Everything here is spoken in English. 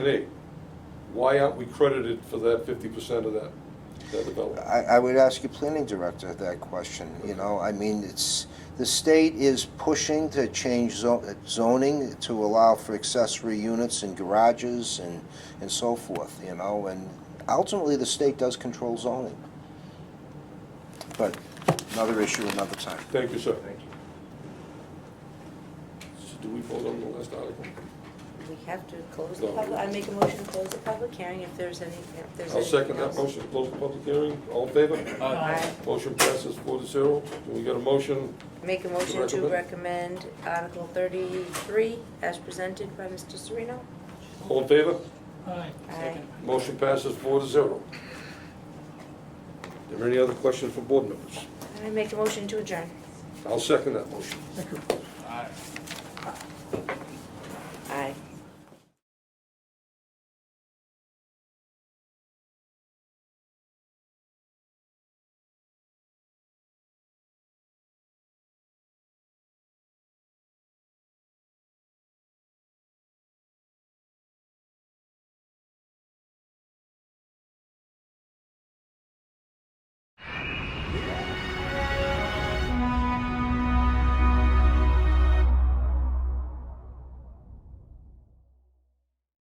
today, why aren't we credited for that fifty percent of that, that development? I, I would ask your planning director that question, you know, I mean, it's, the state is pushing to change zo- zoning to allow for accessory units and garages and, and so forth, you know, and ultimately, the state does control zoning. But another issue another time. Thank you, sir. Thank you. Do we vote on the last article? We have to close the No. public, I make a motion to close the public hearing if there's any, if there's anything else. I'll second that motion, close the public hearing, all in favor? Aye. Motion passes four to zero. Do we get a motion? Make a motion to recommend Article thirty-three as presented by Mr. Serino. All in favor? Aye. Aye. Motion passes four to zero. Are there any other questions from board members? I make a motion to adjourn. I'll second that motion. Aye.